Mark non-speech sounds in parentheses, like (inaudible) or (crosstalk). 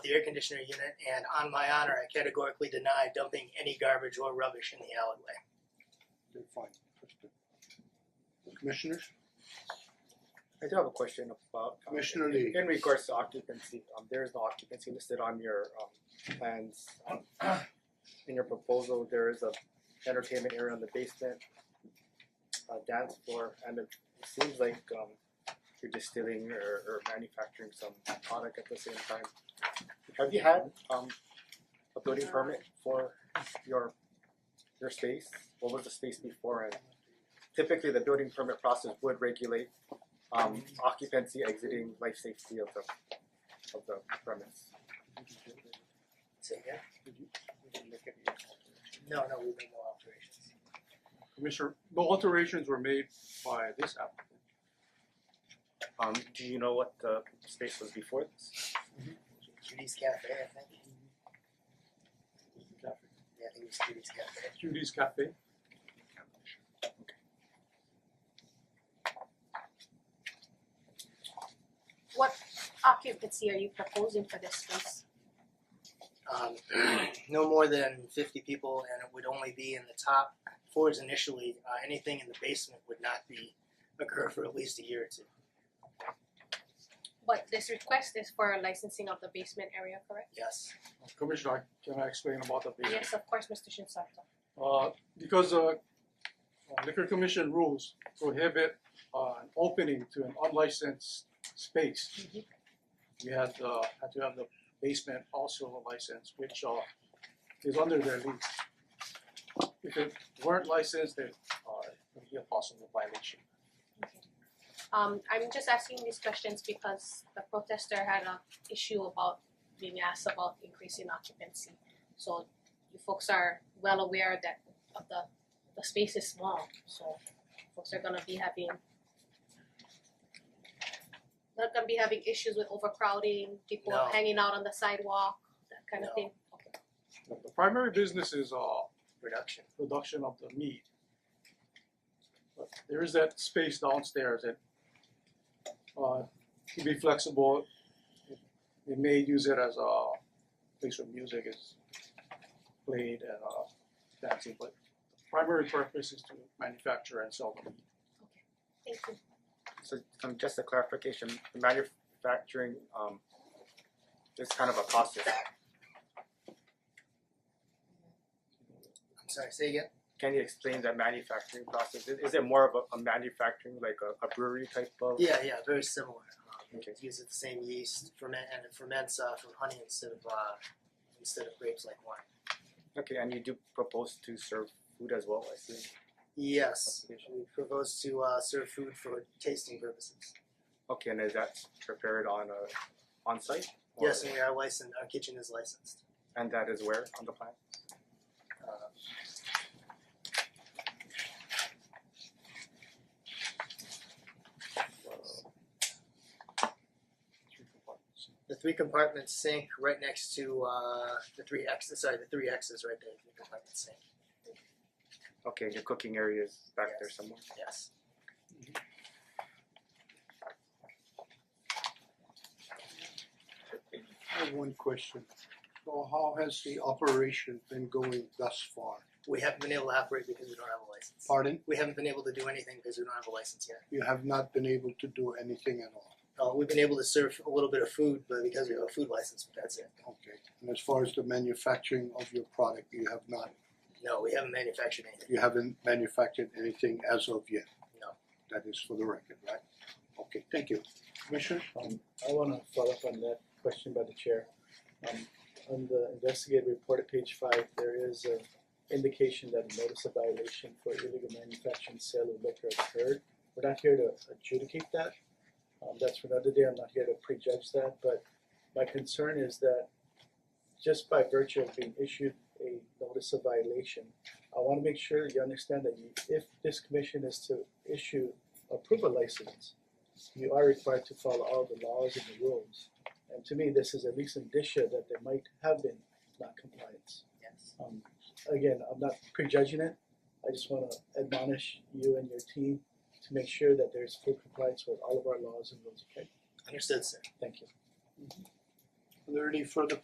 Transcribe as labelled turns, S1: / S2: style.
S1: the air conditioner unit, and on my honor, I categorically deny dumping any garbage or rubbish in the alleyway.
S2: Okay, fine. Commissioners,
S3: I do have a question about um,
S2: Commissioner
S3: in-
S2: Lee.
S3: In regards to occupancy, um there is no occupancy listed on your um plans. (clears throat) In your proposal, there is a entertainment area in the basement, a dance floor, and it seems like um you're distilling or or manufacturing some product at the same time. Have you had um a building permit for your your space? What was the space before and typically the building permit process would regulate um occupancy exiting life safety of the of the premise.
S1: Say again? No, no, we've made no alterations.
S2: Commissioner, no alterations were made by this applicant.
S3: Um do you know what the space was before this?
S1: Judy's Cafe, I think. Yeah, I think it was Judy's Cafe.
S2: Judy's Cafe.
S4: occupancy are you proposing for this space?
S1: um, (clears throat) no more than fifty people, and it would only be in the top floors initially. Uh, anything in the basement would not be occur for at least a year or two.
S4: But this request is for licensing of the basement area, correct?
S1: Yes,
S5: Commissioner, can I explain about the basement?
S4: Yes, of course, Mr. Shinsato.
S5: Uh, because uh, uh, liquor commission rules prohibit uh, an opening to an unlicensed space. We had uh, had to have the basement also licensed, which uh is under their lease. If it weren't licensed, then uh it would be a possible violation.
S4: Um I'm just asking these questions because the protester had a issue about being asked about increasing occupancy. So you folks are well aware that of the the space is small, so folks are gonna be having they're gonna be having issues with overcrowding, people
S1: No.
S4: hanging out on the sidewalk, that kind of
S1: No.
S4: thing. Okay.
S5: The the primary business is uh
S1: reduction.
S5: production of the meat. But there is that space downstairs that uh to be flexible, we may use it as a place where music is played and uh dancing, but the primary purpose is to manufacture and sell the meat.
S4: Thank you.
S3: So um just a clarification, the manufacturing um is kind of a process.
S1: I'm sorry, say again.
S3: Can you explain that manufacturing process? Is is it more of a a manufacturing, like a a brewery type of?
S1: Yeah, yeah, very similar. Um,
S3: Okay.
S1: Use the same yeast, ferment, and it ferments uh, from honey instead of uh, instead of grapes like wine.
S3: Okay, and you do propose to serve food as well, I see.
S1: Yes, we propose to uh, serve food for tasting purposes.
S3: Okay, and is that prepared on a on site?
S1: Yes, and we are licensed. Our kitchen is licensed.
S3: And that is where on the plan?
S1: Uh,
S5: Three compartments.
S1: the three compartment sink right next to uh the three X sorry, the three X's right there, three compartment sink.
S3: Okay, your cooking area is back there
S1: Yes.
S3: somewhere.
S1: Yes.
S2: I have one question. So how has the operation been going thus far?
S1: We haven't been able to operate because we don't have a license.
S2: Pardon?
S1: We haven't been able to do anything because we don't have a license yet.
S2: You have not been able to do anything at all,
S1: Uh, we've been able to serve a little bit of food, but because we have a food license, but that's it.
S2: okay? And as far as the manufacturing of your product, you have not,
S1: No, we haven't manufactured anything.
S2: you haven't manufactured anything as of yet?
S1: No.
S2: That is for the record, right? Okay, thank you. Commissioner?
S6: Um I wanna follow up on that question by the chair. Um on the investigative report at page five, there is a indication that a notice of violation for illegal manufacturing and sale of liquor occurred. We're not here to adjudicate that, um that's for another day, I'm not here to prejudge that, but my concern is that just by virtue of being issued a notice of violation, I wanna make sure that you understand that you, if this commission is to issue approval license, you are required to follow all the laws and the rules. And to me, this is at least indicia that there might have been non-compliance.
S1: Yes.
S6: Um, again, I'm not prejudging it. I just wanna admonish you and your team to make sure that there's full compliance with all of our laws and rules, okay?
S1: Understood, sir.
S6: Thank you.
S1: there any further